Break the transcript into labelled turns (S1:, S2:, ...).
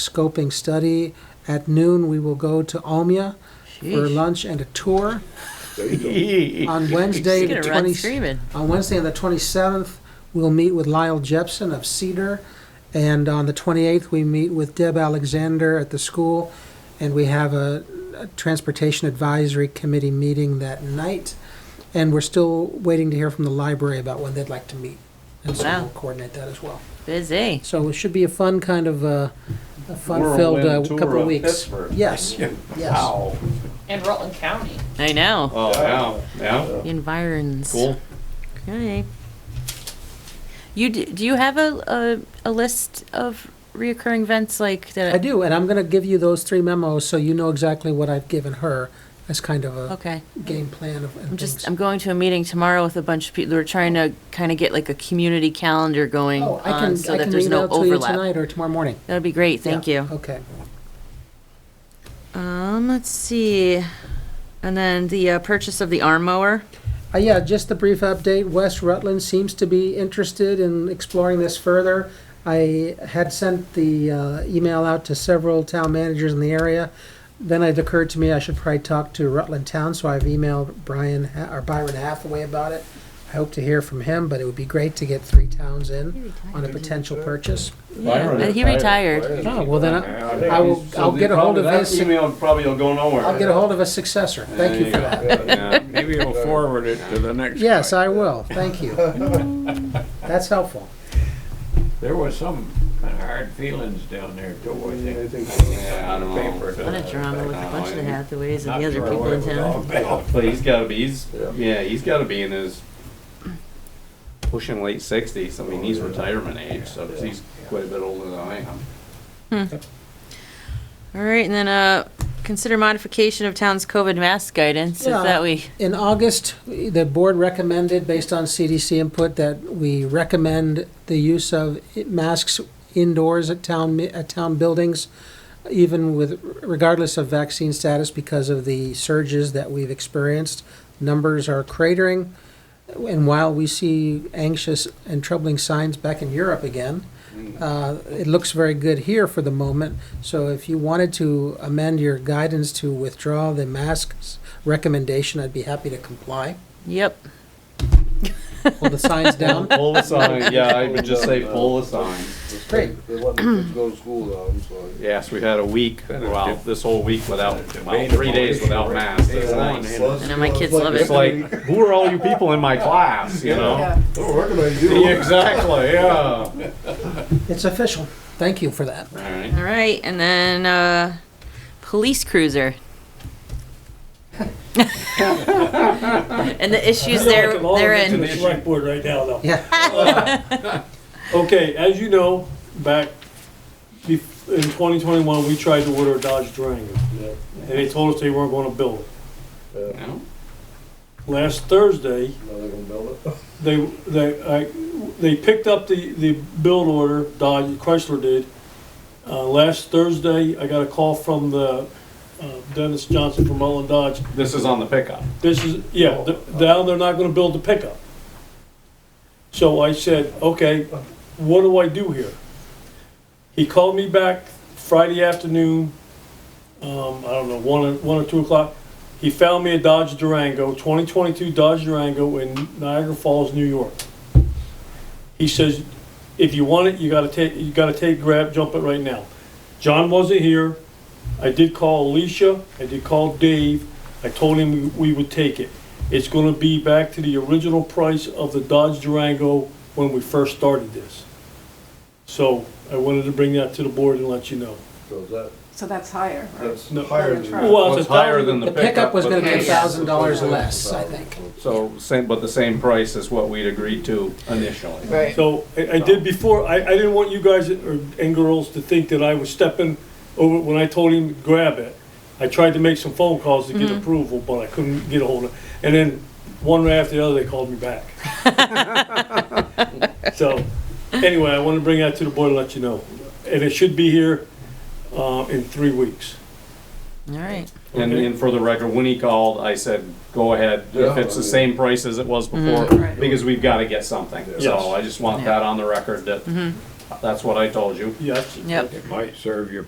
S1: scoping study. At noon, we will go to Almia for lunch and a tour. On Wednesday,
S2: He's
S1: the
S2: gonna run
S1: 20,
S2: screaming.
S1: on Wednesday, on the 27th, we'll meet with Lyle Jepson of Cedar. And on the 28th, we meet with Deb Alexander at the school. And we have a a Transportation Advisory Committee meeting that night. And we're still waiting to hear from the library about when they'd like to meet. And so
S2: Wow.
S1: we'll coordinate that as well.
S2: Busy.
S1: So it should be a fun kind of, uh, a fun-filled uh,
S3: Whirlwind tour
S1: couple of
S3: of
S1: weeks.
S3: Pittsburgh.
S1: Yes, yes.
S3: Wow.
S4: And Rutland County.
S2: I know.
S3: Oh, yeah, yeah,
S2: The environs.
S3: cool.
S2: Okay. You d- do you have a, a a list of reoccurring events like that?
S1: I do, and I'm gonna give you those three memos so you know exactly what I've given her as kind of a
S2: Okay.
S1: game plan of
S2: I'm
S1: and
S2: just
S1: things.
S2: I'm going to a meeting tomorrow with a bunch of people. We're trying to kind of get like a community calendar going
S1: Oh, I
S2: on
S1: can,
S2: so
S1: I
S2: that
S1: can
S2: there's no
S1: email to you
S2: overlap.
S1: tonight or tomorrow morning.
S2: That would be great. Thank
S1: Yeah,
S2: you.
S1: Okay.
S2: Um, let's see. And then the uh, purchase of the arm mower.
S1: Uh, yeah, just a brief update. West Rutland seems to be interested in exploring this further. I had sent the uh, email out to several town managers in the area. Then it occurred to me I should probably talk to Rutland Town, so I've emailed Brian Ha- or Byron Hathaway about it. I hope to hear from him, but it would be great to get three towns in on a potential purchase.
S3: Byron
S2: and Uh, he
S3: retired.
S2: retired.
S1: Oh, well then, I-
S3: Yeah, think
S1: I will-
S3: he's-
S1: I'll
S3: so
S1: get
S3: the-
S1: a hold of
S3: probably
S1: his-
S3: That email probably will go nowhere.
S1: I'll get a hold of a successor. Thank you for that.
S3: that.
S5: Maybe we'll forward it to the next.
S1: Yes,
S5: guy.
S1: I will. Thank you. That's helpful.
S5: There was some kind of hard feelings down there too, I think.
S3: Yeah, I don't know.
S2: What a drama with a bunch of the Hathaways and the other
S5: Not sure
S2: people
S5: what
S2: in
S5: it was all
S2: town.
S5: about.
S3: But he's gotta be, he's, yeah, he's gotta be in his, pushing late sixties, I mean, he's retirement age, so 'cause he's quite a bit older than I am.
S2: All right, and then uh, consider modification of town's COVID mask guidance.
S1: Yeah.
S2: If that we
S1: In August, the board recommended, based on CDC input, that we recommend the use of masks indoors at town, at town buildings, even with, regardless of vaccine status, because of the surges that we've experienced. Numbers are cratering, and while we see anxious and troubling signs back in Europe again, uh, it looks very good here for the moment. So if you wanted to amend your guidance to withdraw the masks recommendation, I'd be happy to comply.
S2: yep.
S1: Pull the signs down.
S3: Pull the sign, yeah, I would just say pull the sign.
S1: Great.
S6: They let the kids go to school though, I'm sorry.
S3: Yes, we had a week, well, this whole week without, well,
S5: Debatable
S3: three days
S5: issue
S3: without
S5: right
S3: masks,
S5: there.
S3: that's nice.
S2: I know my kids love it.
S3: It's like, who are all you people in my class, you know?
S6: Oh, what can I do?
S3: Exactly, yeah.
S1: It's official. Thank you for that.
S3: Alright.
S2: All right, and then uh, police cruiser. and the issues there
S7: Like, I'm all into
S2: therein.
S7: the Select board right now, though.
S1: Yeah.
S7: Okay, as you know, back be- in 2021, we tried to order a Dodge Durango. And they told us they weren't going to build it.
S3: No?
S7: Last Thursday,
S6: Now they're gonna build it.
S7: they, they, I, they picked up the, the build order, Dodge, Chrysler did. Uh, last Thursday, I got a call from the, uh, Dennis Johnson from Rutland Dodge.
S3: This is on the pickup.
S7: This is, yeah, th- now they're not gonna build the pickup. So I said, okay, what do I do here? He called me back Friday afternoon, um, I don't know, one, or- one or two o'clock. He found me a Dodge Durango, twenty twenty-two Dodge Durango in Niagara Falls, New York. He says, if you want it, you gotta take, you gotta take, grab, jump it right now. John wasn't here, I did call Alicia, I did call Dave, I told him we would take it. It's gonna be back to the original price of the Dodge Durango when we first started this. So I wanted to bring that to the board and let you know.
S6: So is that,
S8: So that's higher, right?
S6: that's
S7: No.
S6: higher
S8: Than
S6: than.
S8: the truck.
S7: Well,
S3: It's higher than the
S1: The pickup was gonna
S3: but-
S1: be a
S2: Yeah.
S1: thousand dollars less, I think.
S3: So, same, but the same price as what we'd agreed to initially.
S4: Right.
S7: So I, I did before, I, I didn't want you guys or, and girls to think that I was stepping over when I told him to grab it. I tried to make some phone calls to get approval, but I couldn't get a hold of, and then one right after the other, they called me back. So, anyway, I want to bring that to the board and let you know. And it should be here, uh, in three weeks.
S2: All right.
S3: And, and for the record, when he called, I said, go ahead, if it's the same
S1: Mm-hmm.
S3: price as it was before,
S8: Mhm. Right.
S3: because we've gotta get something.
S7: Yes.
S1: Mm-hmm.
S3: So I just want that on the record that That's what I told you.
S7: Yes.
S2: Yep.
S5: It might serve you